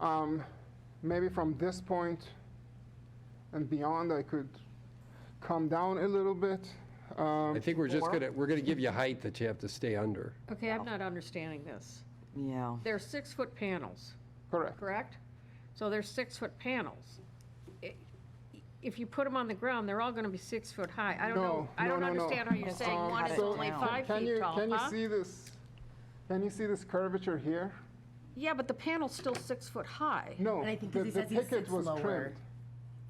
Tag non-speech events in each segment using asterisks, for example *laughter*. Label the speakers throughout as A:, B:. A: Um, Maybe from this point and beyond, I could come down a little bit. Um,
B: I think we're just going to, we're going to give you height that you have to stay under.
C: Okay, I'm not understanding this.
D: Yeah.
C: They're six-foot panels,
A: Correct.
C: correct? So they're six-foot panels. I- If you put them on the ground, they're all going to be six foot high. I don't know,
A: No,
C: I
A: no,
C: don't
A: no, no.
C: understand how you're saying
A: Um,
C: one is
A: so
C: only
D: down.
C: five
A: can
C: feet
A: you-
C: tall,
A: Can you
C: huh?
A: see this, can you see this curvature here?
C: Yeah, but the panel's still six foot high.
A: No.
E: And I think
A: the-
E: 'cause he
A: the
E: says he
A: picket
E: sits
A: was
E: lower.
A: trimmed.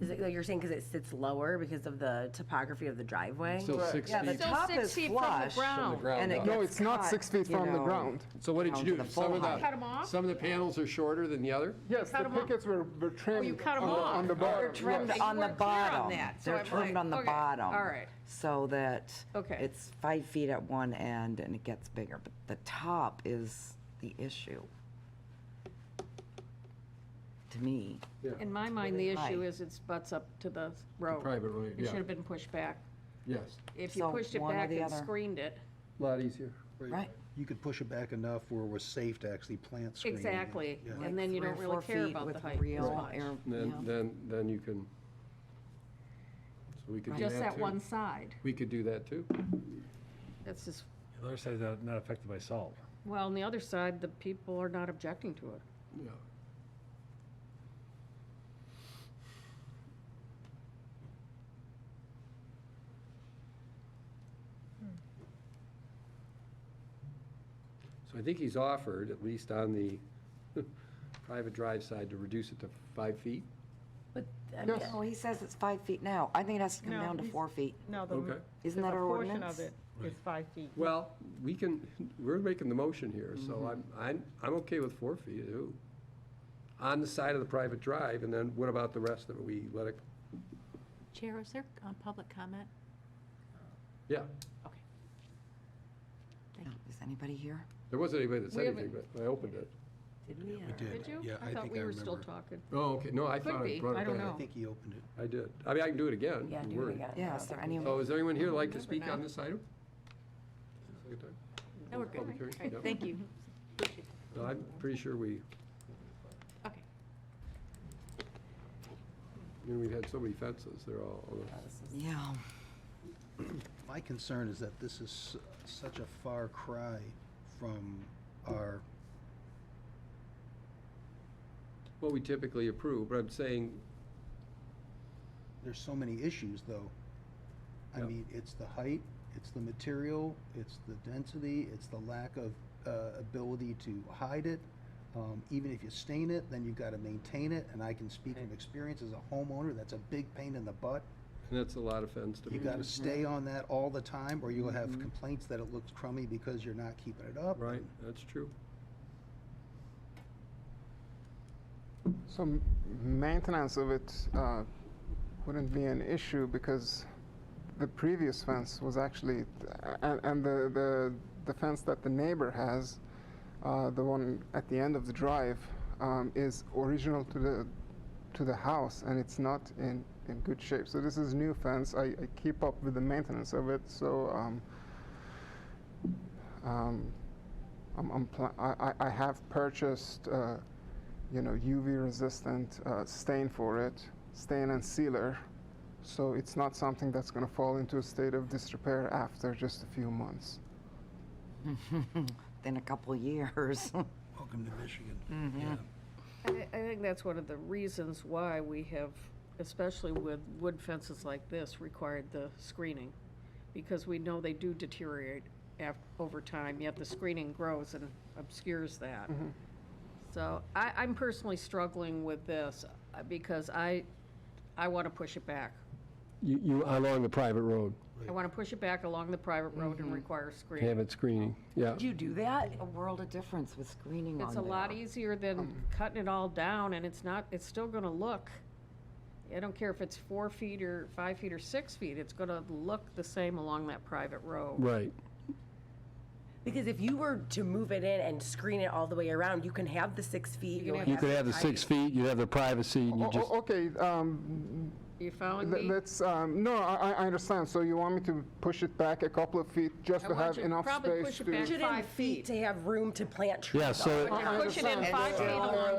E: Is it, like you're saying, because it sits lower because of the topography of the driveway?
B: Still six
D: Yeah, the
B: feet
C: Still
D: top
C: six
D: is
C: feet from the
D: flush.
C: ground.
B: from the ground
D: and it
B: up.
A: No,
D: gets
A: it's not
D: cut,
A: six feet
D: you
A: from the
D: know.
A: ground.
B: So what did
D: down
B: you
D: to
B: do?
D: the
B: Some
D: full
B: of
D: height.
C: Cut 'em
B: the,
C: off?
B: some of the panels are shorter than the other?
A: Yes,
C: cut
A: the
C: 'em off. Oh,
A: pickets were were trimmed
C: cut 'em
A: on the-
C: off.
A: on the
B: They're
A: bottom.
D: Trimmed
A: yes.
C: You
D: on the
C: weren't clear on
D: bottom.
C: that, so
D: They're
C: I'm
D: trimmed
C: like,
D: on the
C: okay,
D: bottom.
C: all right.
D: So that
C: Okay.
D: it's five feet at one end and it gets bigger, but the top is the issue. To me.
C: In my mind, the
D: Really
C: issue
D: high.
C: is it's butts up to the road.
B: Private road,
C: It
B: yeah.
C: should have been pushed back.
B: Yes.
C: If you
D: So
C: pushed it
D: one or
C: back
D: the
C: and
D: other.
C: screened it,
B: Lot easier.
D: Right.
F: You could push it back enough where we're safe to actually plant screening. it.
C: exactly,
F: Yeah.
C: and then you
D: Three or
C: don't really
D: four
C: care
D: feet
C: about
D: with
C: the height. as
D: real
C: much.
D: air-
B: Then,
D: yeah.
B: then, then you can, so we could do that too.
C: Just that one side.
B: We could do that too.
C: That's just,
G: The other side's not, not affected by salt.
C: well, on the other side, the people are not objecting to it.
B: Yeah. So I think he's offered, at least on the *laughs* private drive side, to reduce it to five feet.
E: But, I mean,
D: No, he says it's five feet now. I think it has to come
H: No,
D: down to
H: he's-
D: four feet.
H: No, the,
B: Okay.
D: Isn't
H: the
D: that our
H: portion
D: ordinance?
H: of it is five feet.
B: Well, we can, we're making the motion here, so I'm, I'm, I'm okay with four feet, ooh. On the side of the private drive, and then what about the rest of it? We let it,
I: Chair, is there um, public comment?
B: yeah.
D: Yeah, Is anybody here?
B: There wasn't anybody that said
C: We
B: anything, but I opened it.
E: did we?
F: We
E: uh,
F: did.
C: Did you?
F: Yeah, I
C: thought
F: think I
C: we were still
F: remember.
C: talking.
B: Oh, okay, no, I thought I
C: be,
B: brought it
C: I
B: back.
C: don't
F: I
C: know.
F: think he opened it.
B: I did. I mean, I can do it again.
E: Yeah,
B: don't
E: do
B: worry.
E: we got?
D: Yeah, is there anyone?
B: So is there anyone here like to
C: Remember
B: speak on
C: now.
B: this item? Second time?
I: No, we're good.
B: Public hearing?
I: All right,
B: Yep.
I: Thank you.
B: No, I'm pretty sure we,
I: Okay.
B: I mean, we've had so many fences, they're all, all the-
D: Yeah.
F: My concern is that this is s- such a far cry from our,
B: what we typically approve, but I'm saying,
F: there's so many issues, though. I
B: Yep.
F: mean, it's the height, it's the material, it's the density, it's the lack of uh, ability to hide it. Um, Even if you stain it, then you've got to maintain it, and I can speak from experience as a homeowner, that's a big pain in the butt.
B: and that's a lot of fence to
F: You
B: me.
F: gotta stay on that all the time, or you'll have complaints that it looks crummy because you're not keeping it up.
B: Right, that's true.
A: Some maintenance of it uh, wouldn't be an issue because the previous fence was actually, and, and the, the, the fence that the neighbor has, uh, the one at the end of the drive, um, is original to the, to the house and it's not in, in good shape. So this is new fence. I, I keep up with the maintenance of it. So um, um, I'm, I'm pla- I, I I have purchased, uh, you know, UV-resistant uh, stain for it, stain and sealer. So it's not something that's going to fall into a state of disrepair after just a few months.
D: In a couple years. *laughs*
F: Welcome to Michigan. Yeah.
C: I, I think that's one of the reasons why we have, especially with wood fences like this, required the screening. Because we know they do deteriorate af, over time, yet the screening grows and obscures that.
F: Mm-hmm.
C: So I, I'm personally struggling with this uh, because I, I want to push it back.
B: You, you, along the private road,
C: I want to push it back along the private road and require screening.
B: it screening, yeah.
D: Did you do that? A world of difference with screening on
C: It's a
D: there.
C: lot easier than cutting it all down, and it's not, it's still gonna look, I don't care if it's four feet or five feet or six feet, it's gonna look the same along that private road.
B: Right.
E: Because if you were to move it in and screen it all the way around, you can have the six feet.
C: can
E: you'll
C: have
E: have the height.
B: feet, you have the privacy, and
A: O- o- Oh, okay, um,
C: You following
A: th-
C: me?
A: let's, um, no, I, I- I understand. So you want me to push it back a couple of feet just
C: I
A: to
C: want
A: have
C: you to
A: enough
C: probably
A: space
C: push it
A: to...
C: back.
E: Put it in
C: Five feet.
E: feet to have room to plant trees.
G: Yeah, so
C: But
A: I- I
C: you're pushing it
A: understand.
C: five feet
A: Yeah.
C: along